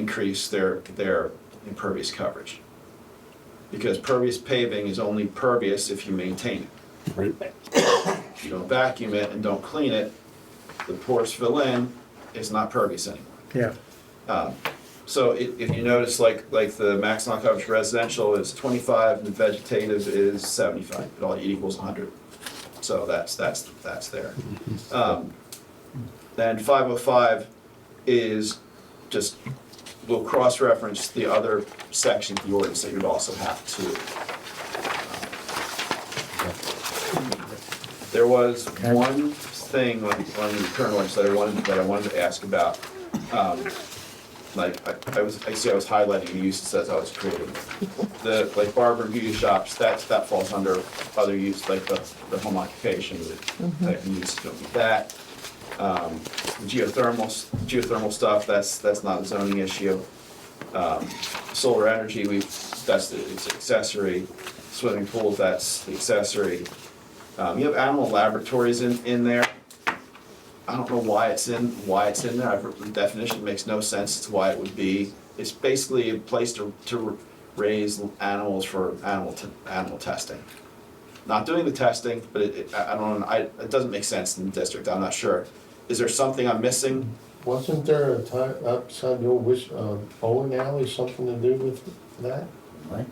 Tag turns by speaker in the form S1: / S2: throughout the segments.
S1: increase their, their impervious coverage. Because pervious paving is only pervious if you maintain it.
S2: right?
S1: If you don't vacuum it and don't clean it, the pores fill in, it's not pervious anymore.
S3: yeah.
S1: So if, if you notice, like, like the maximum coverage residential is twenty-five and vegetative is seventy-five, it all equals hundred. So that's, that's, that's there. Um, Then five oh five is just, we'll cross-reference the other section of the ordinance that you'd also have to. There was one thing on, on the current ordinance that I wanted, that I wanted to ask about. Um, like, I, I was, I see I was highlighting the uses as I was creating. it. The, like barber and beauty shops, that's, that falls under other use, like the, the home occupation, the type of use, don't be that. Um, geothermal, s- geothermal stuff, that's, that's not a zoning issue. Um, solar energy, we, that's the it's accessory, swimming pools, that's the accessory. Um, you have animal laboratories in, in there. I don't know why it's in, why it's in there, I've, the definition makes no sense as to why it would be. It's basically a place to, to raise animals for animal, t- animal testing. Not doing the testing, but it, it, I I don't, I, it doesn't make sense in the district, I'm not sure. Is there something I'm missing?
S4: Wasn't there a time outside the old wish, uh, bowling alley, something to do with that?
S5: Right.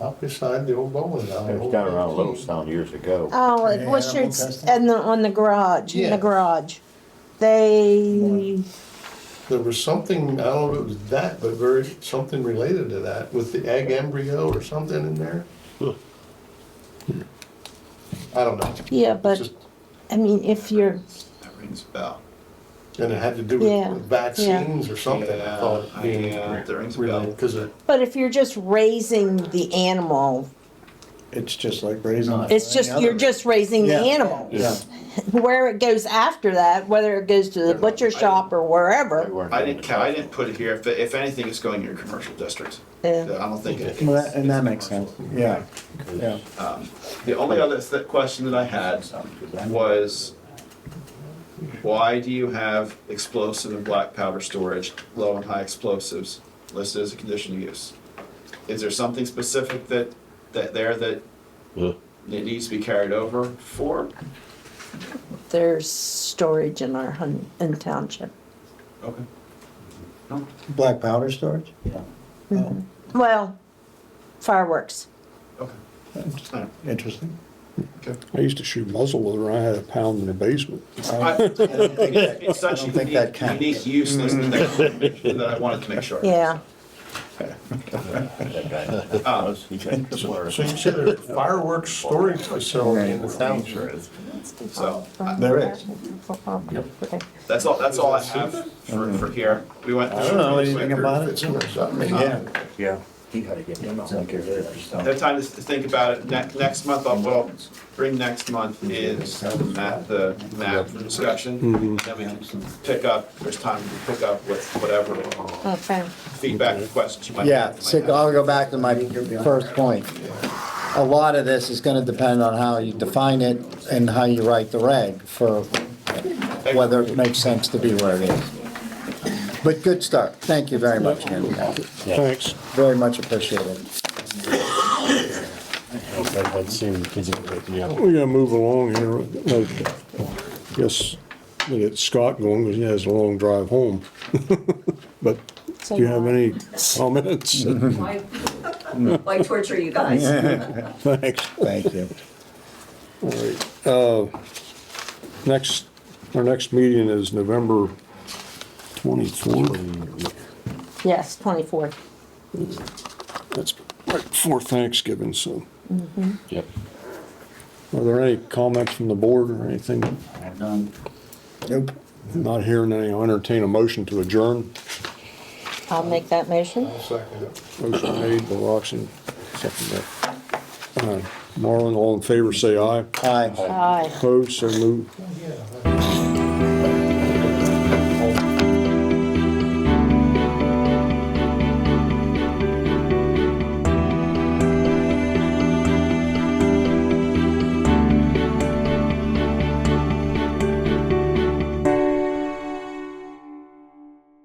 S4: Up beside the old bowling alley.
S5: It was down around Littlestown years ago.
S6: Oh, it was
S3: Animal
S6: your,
S3: testing?
S6: and the, on the garage, in
S4: Yeah.
S6: the garage. They,
S4: There was something, I don't know if it was that, but very, something related to that with the egg embryo or something in there. I don't know.
S6: yeah, but,
S4: Just-
S6: I mean, if you're,
S1: That rings a bell.
S4: And it had to do
S6: Yeah,
S4: with vaccines or something, I
S1: Yeah,
S4: thought,
S1: I-
S4: being
S1: yeah, that rings a
S4: related,
S1: bell.
S4: because it,
S6: but if you're just raising the animal,
S3: It's just like raising.
S6: it's just, you're just raising the
S3: Yeah.
S6: animal.
S3: Yeah,
S6: Where it goes after that, whether it goes to the butcher shop or
S5: They
S6: wherever,
S5: weren't
S1: I
S5: doing
S1: didn't,
S5: it.
S1: ca- I didn't put it here, if, if anything, it's going in your commercial districts. I
S6: yeah.
S1: don't think it.
S3: well, that- and that makes sense, yeah, yeah.
S1: The only other th- question that I had was, why do you have explosive and black powder storage, low and high explosives listed as a conditional use? Is there something specific that, that there that
S2: Yeah.
S1: it needs to be carried over for?
S6: There's storage in our hun, in township.
S1: Okay.
S3: Black powder storage?
S5: Yeah.
S3: Oh,
S6: Mm-hmm. Well, fireworks.
S1: Okay.
S3: Interesting.
S2: I used to shoot muzzle loader, I had a pound in the basement.
S1: I- It's it's such
S3: I
S1: a
S3: don't think that
S1: unique,
S3: counts.
S1: unique use list that that I wanted to make sure.
S6: Yeah,
S5: That guy- that
S1: Um,
S5: was- he got the blur.
S4: so you said there's a fireworks storage facility in the town.
S1: So,
S6: Oh,
S1: I-
S3: There is.
S1: that's all, that's all I have for, for here. We went.
S3: I don't know anything about
S4: It's
S3: it.
S4: in there, so I mean,
S3: Yeah,
S5: Yeah, he gotta get him out
S1: Have time to think about it. Ne- Next month, I'll, well, bring next month is the map, the map discussion. Then we can pick up, there's time to pick up with whatever
S6: okay.
S1: feedback or questions you might
S7: Yeah,
S1: have.
S7: so I'll go back to my first point. A lot of this is gonna depend on how you define it and how you write the reg for whether it makes sense to be where it is. But good start. Thank you very much, Ken.
S2: thanks.
S7: Very much appreciated.
S2: We gotta move along here. Uh, Yes, we get Scott going, because he has a long drive home. But do you have any comments?
S8: Why, why torture you guys?
S2: Thanks.
S7: Thank you.
S2: Uh, Next, our next meeting is November twenty-fourth.
S6: Yes, twenty-four.
S2: That's right before Thanksgiving, so.
S9: Yep.
S2: Are there any comments from the board or anything?
S5: I've done.
S7: Nope.
S2: Not hearing any, I'll entertain a motion to adjourn.
S6: I'll make that motion.
S4: I'll second it.
S2: Motion made by Roxanne, second by uh, Marlon. All in favor, say aye.
S7: Aye.
S6: Aye.
S2: Opposed, so moved.